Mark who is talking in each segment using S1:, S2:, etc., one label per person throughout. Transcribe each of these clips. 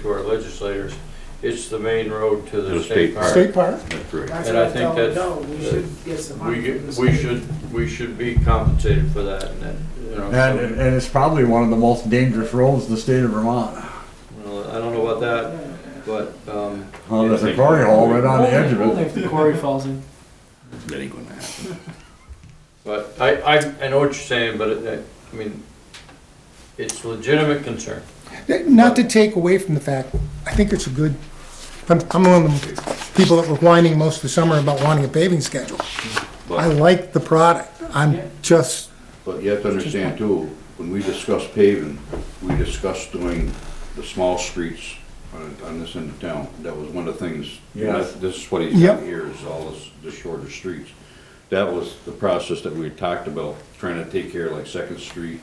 S1: to our legislators, it's the main road to
S2: To
S1: the
S2: the
S1: state
S2: state
S1: park.
S3: State park?
S2: That's right.
S1: And I think that's-
S4: No, we should get some money
S1: We,
S4: from the
S1: get-
S4: state.
S1: we should, we should be compensated for that and that, you know.
S3: And,
S1: so-
S3: and it's probably one of the most dangerous roads in the state of Vermont.
S1: well, I don't know about that, but, um,
S3: Well, there's a quarry hole right on the edge of
S5: Only
S3: it.
S5: if the quarry falls in.
S2: That ain't gonna happen.
S1: but I, I, I know what you're saying, but it, I mean, it's legitimate concern.
S6: Not to take away from the fact, I think it's a good, I'm, I'm one of the people that were whining most of the summer about wanting a paving schedule. I
S2: But,
S6: like the product, I'm just,
S2: but you have to understand too, when we discuss paving, we discussed doing the small streets on, on this end of town. That was one of the things,
S3: Yes.
S2: this is what he's got
S6: Yep.
S2: here is all this, the shorter streets. That was the process that we had talked about, trying to take care of like Second Street,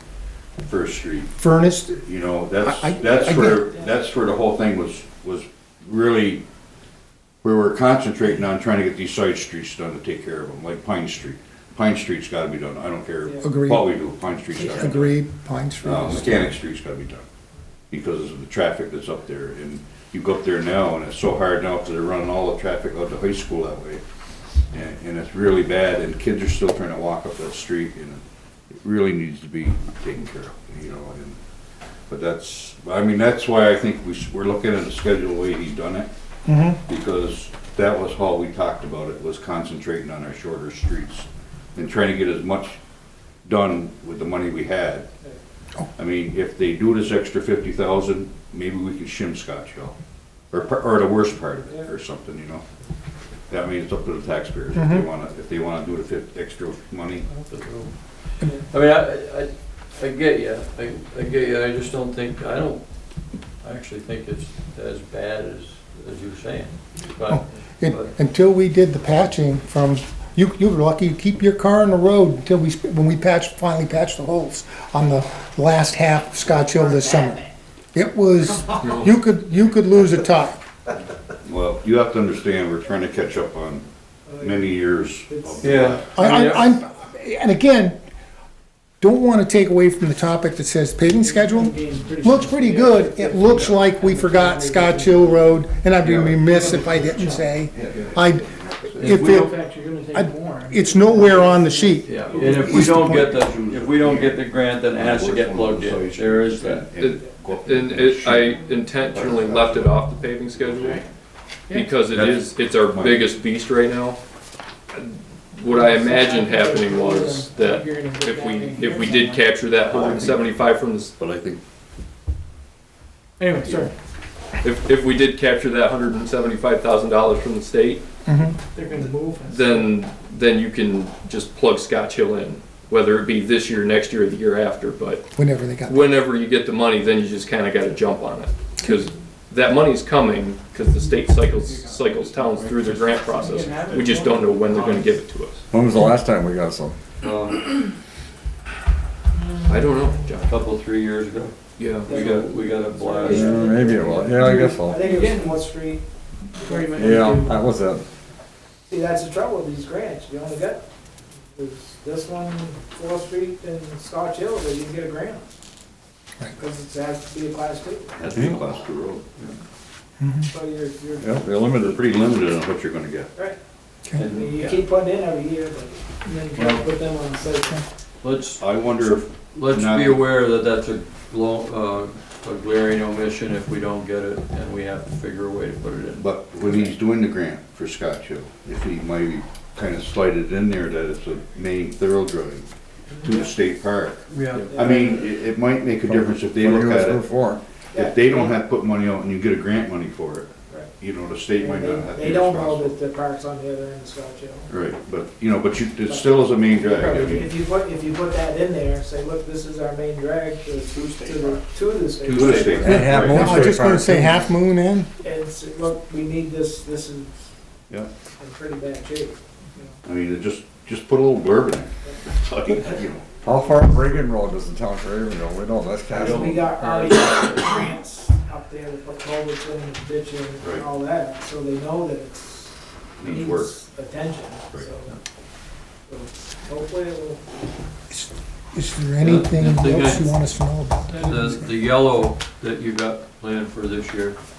S2: First Street.
S6: furnished,
S2: You know, that's,
S6: I- I- I
S2: that's
S6: get
S2: where, that's where the whole thing was, was really, we were concentrating on trying to get these side streets done to take care of them, like Pine Street. Pine Street's gotta be done, I don't care
S6: Agreed.
S2: what we do, Pine Street's gotta be done.
S6: agreed, Pine
S2: Uh,
S6: Street.
S2: Mechanic Street's gotta be done, because of the traffic that's up there, and you go up there now, and it's so hard now, because they're running all the traffic out to high school that way. And, and it's really bad, and kids are still trying to walk up that street, and it really needs to be taken care of, you know, and, but that's, I mean, that's why I think we, s- we're looking at the schedule the way he's done it,
S6: Mhm.
S2: because that was how we talked about it, was concentrating on our shorter streets, and trying to get as much done with the money we had. I mean, if they do this extra fifty thousand, maybe we can shim Scotch Hill, or, par- or the worst part of it, or something, you know? That means it's up to the taxpayers, if they wanna, if they wanna do the fif, extra money.
S1: I mean, I, I, I get you, I, I get you, I just don't think, I don't, I actually think it's as bad as, as you're saying.
S6: Oh,
S1: But,
S6: And Until we did the patching from, you, you were lucky, you keep your car on the road until we, sp- when we patched, finally patched the holes on the last half of Scotch Hill this summer. It was, you could, you could lose a tire.
S2: Well, you have to understand, we're trying to catch up on many years of
S1: yeah.
S6: I,
S1: mean,
S6: I, I'm, and again, don't want to take away from the topic that says paving schedule. Looks pretty good. It looks like we forgot Scotch Hill Road, and I'd be remiss if I didn't say, I, if
S4: In
S6: it,
S4: fact, you're gonna
S6: I-
S4: take more.
S6: it's nowhere on the sheet.
S1: Yeah, and if we don't get the, if we don't get the grant, then it has to get plugged in, there is that.
S2: And go up
S7: And it, I intentionally left it off the paving schedule because it is, it's our biggest beast right now. What I imagined happening was that if we, if we did capture that hundred and seventy-five from the, s-
S2: But I think
S4: Anyway, sorry,
S7: if, if we did capture that hundred and seventy-five thousand dollars from the state,
S4: they're gonna move. us.
S7: then, then you can just plug Scotch Hill in, whether it be this year, next year, or the year after, but
S6: Whenever they got,
S7: whenever you get the money, then you just kind of got to jump on it because that money's coming because the state cycles cycles towns through their grant process. We just don't know when they're going to give it to us.
S3: When was the last time we got some?
S1: Um,
S7: I don't know, John.
S1: Couple, three years ago,
S7: Yeah,
S1: we got, we got a blast.
S3: Yeah, Maybe it was, yeah, I guess
S4: I
S3: so.
S4: think it was North Street. where you might need
S3: Yeah,
S4: to-
S3: that was it.
S4: See, that's the trouble with these grants, you only get, there's this one, Fourth Street and Scotch Hill, that you can get a grant.
S6: Right.
S4: Because it has to be a class two,
S2: that's the class two road.
S4: so you're, you're,
S3: Yeah, they're
S2: They're
S3: limited.
S2: pretty limited on what you're gonna get.
S4: right, I
S6: okay.
S4: mean, you keep putting in every year, but then you gotta put them on the site.
S1: Let's,
S2: I wonder if,
S1: let's
S2: Not-
S1: be aware that that's a long, uh, a glaring omission if we don't get it, and we have to figure a way to put it in.
S2: but when he's doing the grant for Scotch Hill, if he might kind of slide it in there that it's a main thoroughbred to the state park.
S1: Yeah.
S2: I mean, it, it might make a difference if they look at it.
S3: Before.
S2: If they don't have to put money out and you get a grant money for it,
S4: Right.
S2: you know, the state might not have to
S4: They
S2: be
S4: don't know
S2: responsible.
S4: that the park's on the other end of Scotch Hill.
S2: Right, but, you know, but you, it still is a main drag. I mean,
S4: If you put, if you put that in there, say, look, this is our main drag to, to the, to the state.
S2: To the state.
S3: And half
S6: No,
S3: moon
S6: I was
S3: street
S6: just gonna
S3: park.
S6: say Half Moon Inn,
S4: And say, look, we need this, this is
S2: Yeah.
S4: in pretty bad shape.
S2: I mean, it just, just put a little blurb in there. You know,
S3: How far up Reagan Road does the town for Reagan Road? We don't, that's
S4: So we
S3: Castle.
S4: got already got grants up there to put culverts in and ditching
S2: Right.
S4: and all that, so they know that it's
S2: Needs work.
S4: Attention,
S2: Right.
S4: so. so Hopefully it will.
S6: Is there anything
S1: Nothing
S6: else you
S1: else.
S6: want us to know about?
S1: The, the yellow that you got planned for this year,